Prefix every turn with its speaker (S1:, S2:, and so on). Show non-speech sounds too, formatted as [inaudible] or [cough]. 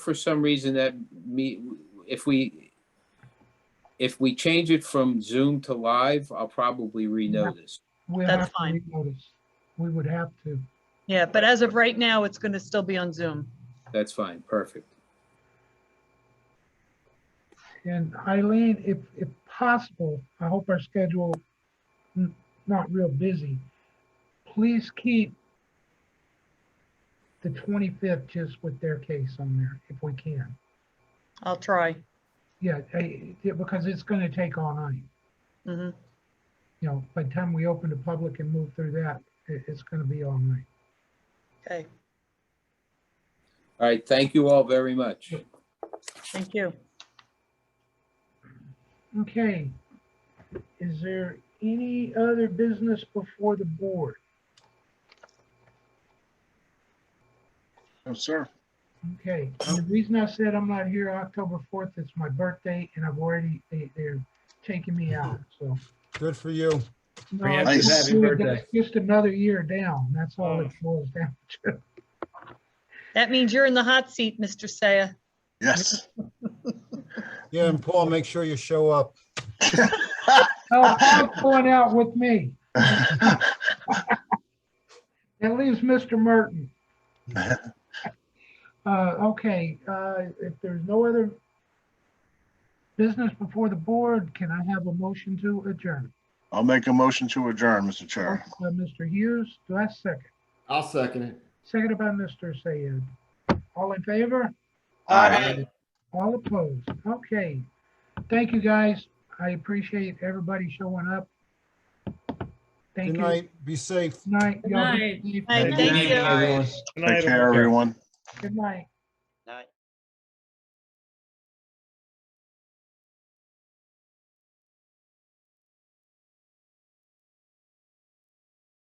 S1: for some reason that me, if we, if we change it from Zoom to live, I'll probably renotice.
S2: We
S3: That's
S2: have to
S3: fine.
S2: renotice. We would have to.
S3: Yeah, but as of right now, it's going to still be on Zoom.
S1: That's fine, perfect.
S2: And Eileen, if, if possible, I hope our schedule n- not real busy. Please keep the 25th just with their case on there if we can.
S3: I'll try.
S2: Yeah, I- yeah, because it's going to take all night.
S3: Mhm.
S2: You know, by the time we open to public and move through that, it, it's going to be all night.
S3: Okay,
S1: All right, thank you all very much.
S3: thank you.
S2: Okay. Is there any other business before the board?
S4: No, Oh, sir.
S2: Okay, and the reason I said I'm not here October fourth, it's my birthday and I've already, they, they're taking me out, so.
S5: Good for you.
S2: No,
S4: Preemptive
S2: it's-
S4: happy Oh.
S5: birthday.
S2: Just another year down, that's all it boils down to.
S3: That means you're in the hot seat, Mr. Saya.
S4: Yes. [laughs]
S5: Yeah, and Paul, make sure you show up.
S2: Oh, Paul's going out with me. That leaves Mr. Merton. Uh, okay, uh, if there's no other business before the board, can I have a motion to adjourn?
S4: I'll make a motion to adjourn, Mr. Chair.
S2: Uh, Mr. Hughes, do I second?
S6: I'll second it.
S2: Seconded by Mr. Sayed. All in favor? All opposed? Okay. Thank you, guys. I appreciate everybody showing up. Thank
S5: Good
S2: you.
S5: night. Be safe.
S2: Night. y'all.
S3: Hi,
S2: Good
S3: thank you.
S4: Take care, everyone.
S2: Good night.